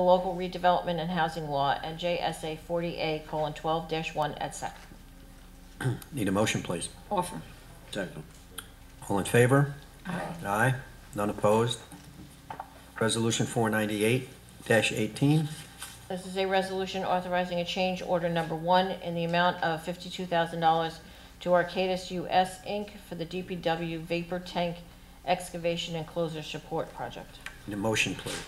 the local redevelopment and housing law and JSA 40A colon 12 dash 1 et sec. Need a motion, please. Offer. Second. All in favor? Aye. Aye. None opposed? Resolution 498-18. This is a resolution authorizing a change order number one in the amount of $52,000 to Arcadis US Inc. for the DPW vapor tank excavation and closure support project. Need a motion, please.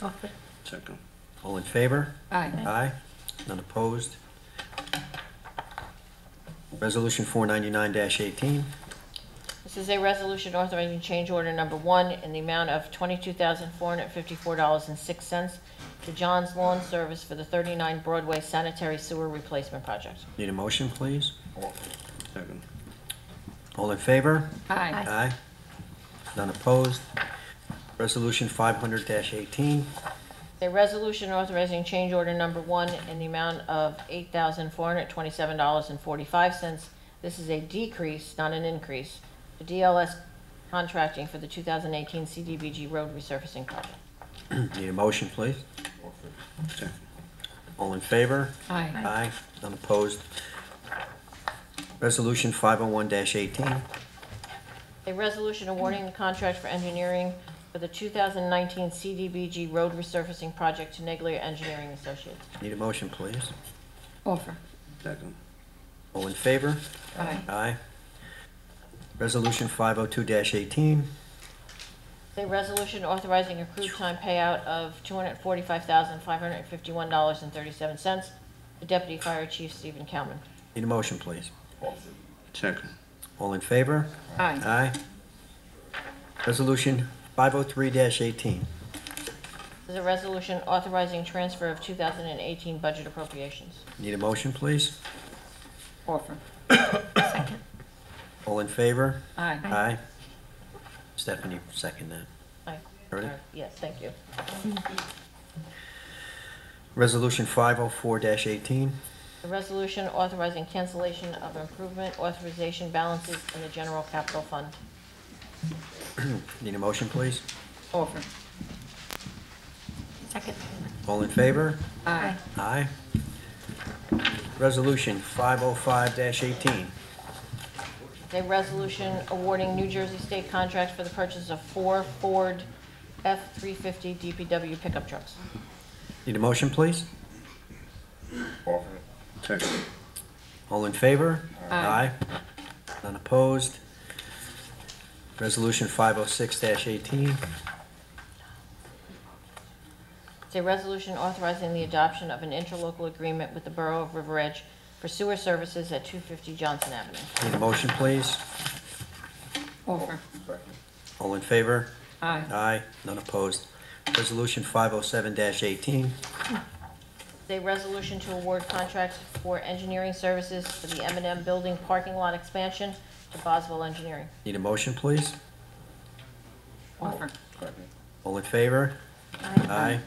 Offer. Second. All in favor? Aye. Aye. None opposed? Resolution 499-18. This is a resolution authorizing change order number one in the amount of $22,454.06 to John's Lawn Service for the 39 Broadway sanitary sewer replacement project. Need a motion, please. Second. All in favor? Aye. Aye. None opposed? Resolution 500-18. A resolution authorizing change order number one in the amount of $8,427.45. This is a decrease, not an increase, to DLS contracting for the 2018 CDBG road resurfacing project. Need a motion, please. Second. All in favor? Aye. Aye, none opposed. Resolution 501-18, A resolution awarding the contract for engineering for the 2019 CDBG road resurfacing project to Neglia Engineering Associates. need a motion, please. Offer. Second. All in favor? Aye. Aye. Resolution 502-18, A resolution authorizing accrued time payout of $245,551.37 to Deputy Fire Chief Stephen Kalman. need a motion, please. Second. All in favor? Aye. Aye. Resolution 503-18, This is a resolution authorizing transfer of 2018 budget appropriations. need a motion, please. Offer. All in favor? Aye. Aye. Stephanie, second that. Aye. Ready? Yes, thank you. Resolution 504-18, A resolution authorizing cancellation of improvement authorization balances in the general capital fund. need a motion, please. Offer. Second. All in favor? Aye. Aye. Resolution 505-18. A resolution awarding New Jersey state contract for the purchase of four Ford F-350 DPW pickup trucks. Need a motion, please? Offer. Second. All in favor? Aye. None opposed? Resolution 506-18. It's a resolution authorizing the adoption of an interlocal agreement with the Borough of River Edge for sewer services at 250 Johnson Avenue. Need a motion, please? Offer. All in favor? Aye. Aye. None opposed? Resolution 507-18. A resolution to award contract for engineering services for the m and M Building parking lot expansion to Boswell Engineering. Need a motion, please? Offer. All in favor? Aye.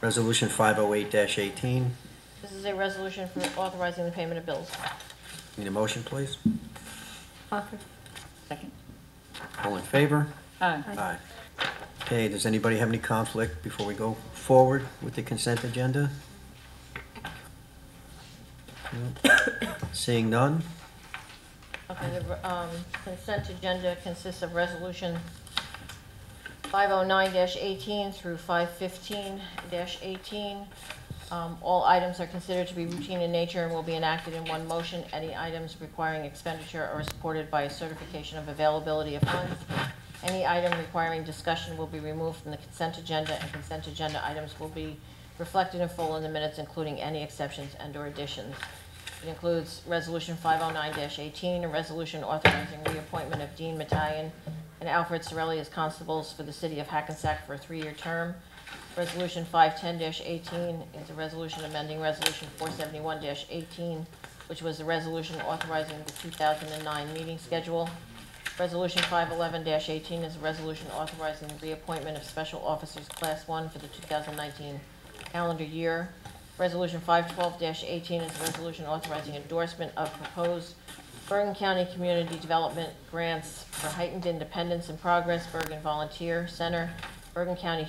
Resolution 508-18. This is a resolution for authorizing the payment of bills. Need a motion, please? Offer. Second. All in favor? Aye. Aye. Okay, does anybody have any conflict before we go forward with the consent agenda? No. Seeing none, Okay, the um, consent agenda consists of resolution 509-18 through 515-18. Um, All items are considered to be routine in nature and will be enacted in one motion. Any items requiring expenditure are supported by a certification of availability of funds. Any item requiring discussion will be removed from the consent agenda, and consent agenda items will be reflected in full in the minutes, including any exceptions and/or additions. It includes Resolution 509-18, a resolution authorizing reappointment of Dean Matayan and Alfred Sorelli as constables for the city of Hackensack for a three-year term. Resolution 510-18 is a resolution amending Resolution 471-18, which was the resolution authorizing the 2009 meeting schedule. Resolution 511-18 is a resolution authorizing the reappointment of special officers Class 1 for the 2019 calendar year. Resolution 512-18 is a resolution authorizing endorsement of proposed Bergen County Community Development Grants for Heightened Independence and Progress, Bergen Volunteer Center, Bergen County